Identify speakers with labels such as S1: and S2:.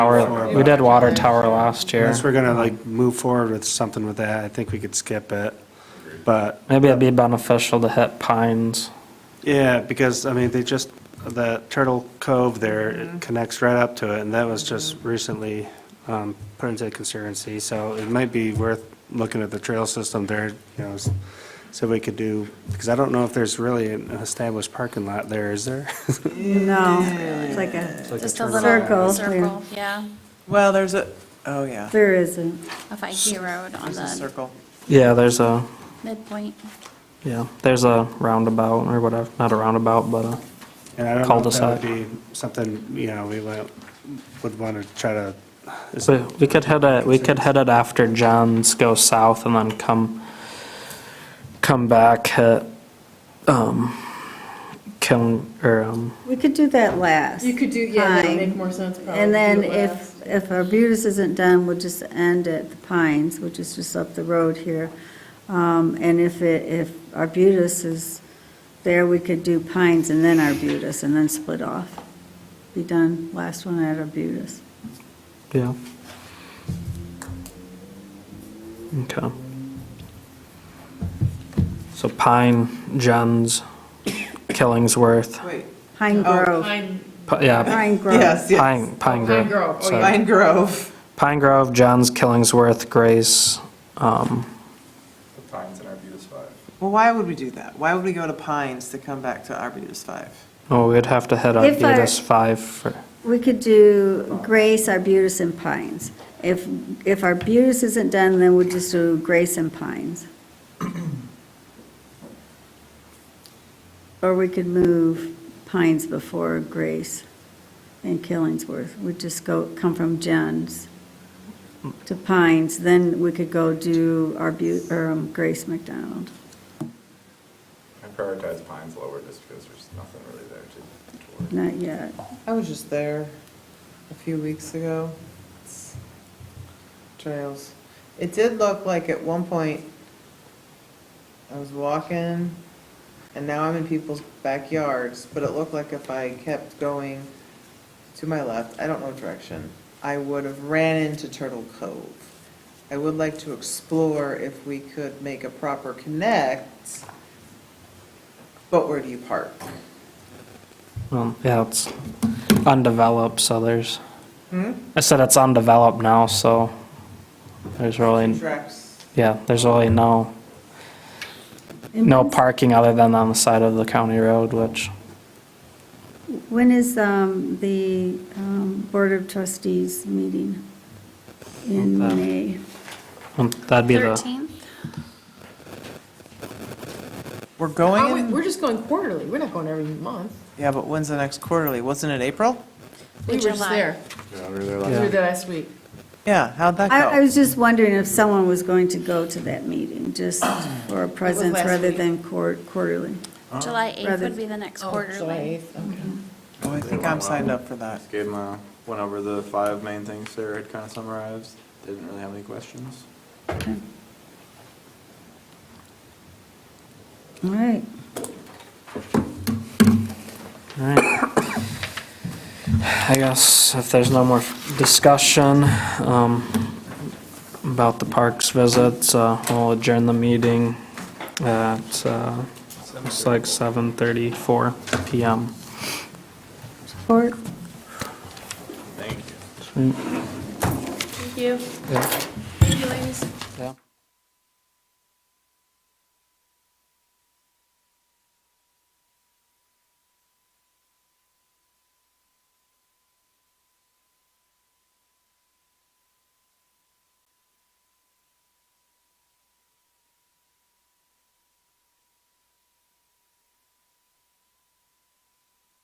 S1: Tower, we did water tower last year.
S2: Unless we're gonna like move forward with something with that, I think we could skip it. But,
S1: Maybe it'd be beneficial to hit pines.
S2: yeah, because, I mean, they just, that Turtle Cove there, it connects right up to it, and that was just recently um, put into conservancy, so it might be worth looking at the trail system there, you know, s- so we could do, because I don't know if there's really an established parking lot there, is there?
S3: No, it's like a,
S4: Just a
S3: Circle,
S4: little circle, yeah,
S5: Well, there's a, oh, yeah,
S3: there isn't.
S4: off IG Road on
S5: there's a
S4: the
S5: circle.
S1: Yeah, there's a,
S4: midpoint.
S1: yeah, there's a roundabout or whatever, not a roundabout, but a,
S2: And I don't know if that
S1: Cul-de-sac.
S2: would be something, you know, we would, would want to try to, is
S1: so we could hit it, we could hit it after John's, go south and then come, come back, hit, um, Kiln, or, um,
S3: We could do that last.
S6: You could do, yeah, that would
S3: Pine.
S6: make more sense probably.
S3: And then
S6: Do it last.
S3: if, if Arbutus isn't done, we'll just end at the Pines, which is just up the road here. Um, And if it, if Arbutus is there, we could do Pines and then Arbutus, and then split off. Be done, last one at Arbutus.
S1: yeah. Okay. So Pine, John's, Killingsworth,
S5: Wait,
S3: Pine
S5: Oh,
S3: Grove,
S6: Pine
S1: Pi- yeah,
S3: Pine Grove.
S5: yes, yes.
S1: Pine, Pine
S6: Pine
S1: Grove.
S6: Grove, oh,
S1: sorry.
S6: yeah.
S5: Pine Grove.
S1: Pine Grove, Johns, Killingsworth, Grace, um,
S7: Pines and Arbutus Five.
S5: Well, why would we do that? Why would we go to Pines to come back to Arbutus Five?
S1: oh, we'd have to hit
S3: If I-
S1: Arbutus five for,
S3: We could do Grace, Arbutus, and Pines. If, if Arbutus isn't done, then we'll just do Grace and Pines. Or we could move Pines before Grace and Killingsworth. We'd just go, come from Jen's to Pines, then we could go do Arbu, or um, Grace McDonald.
S7: I prioritize Pines lower just because there's nothing really there to tour.
S3: Not yet.
S5: I was just there a few weeks ago. It's- Trails. It did look like at one point, I was walking, and now I'm in people's backyards, but it looked like if I kept going to my left, I don't know direction, I would have ran into Turtle Cove. I would like to explore if we could make a proper connect, but where do you park?
S1: well, yeah, it's undeveloped, so there's,
S5: Hmm?
S1: I said it's undeveloped now, so there's really,
S5: Tracks.
S1: yeah, there's really no, no parking other than on the side of the county road, which,
S3: When is um, the um, Board of Trustees meeting? In
S1: Okay.
S3: May?
S1: um, that'd be the,
S4: Thirteenth,
S5: We're
S6: Oh,
S5: going
S6: wait,
S5: in-
S6: We're just going quarterly, we're not going every month.
S5: Yeah, but when's the next quarterly? Wasn't it April?
S6: We were just
S4: July.
S6: there,
S7: Yeah, we were there
S6: we
S7: last.
S6: were there last week.
S5: Yeah, how'd that
S3: I I
S5: go?
S3: was just wondering if someone was going to go to that meeting, just for a presence
S6: last
S3: rather
S6: week.
S3: than quar- quarterly.
S4: July eighth
S3: Rather-
S4: would be the next
S6: Oh, July
S4: quarterly.
S6: 8th, okay.
S5: Oh, I think I'm signed up for that.
S7: Just Gave them, a- went over the five main things Sarah had kind of summarized. They Didn't really have any questions.
S3: All right.
S1: all right. I guess if there's no more discussion, um, about the parks visits, uh, we'll adjourn the meeting at, uh, It's like 7:34 PM.
S3: Support?
S7: Thank you.
S4: Thank you.
S1: Yeah.
S4: Thank you, ladies.
S1: Yeah.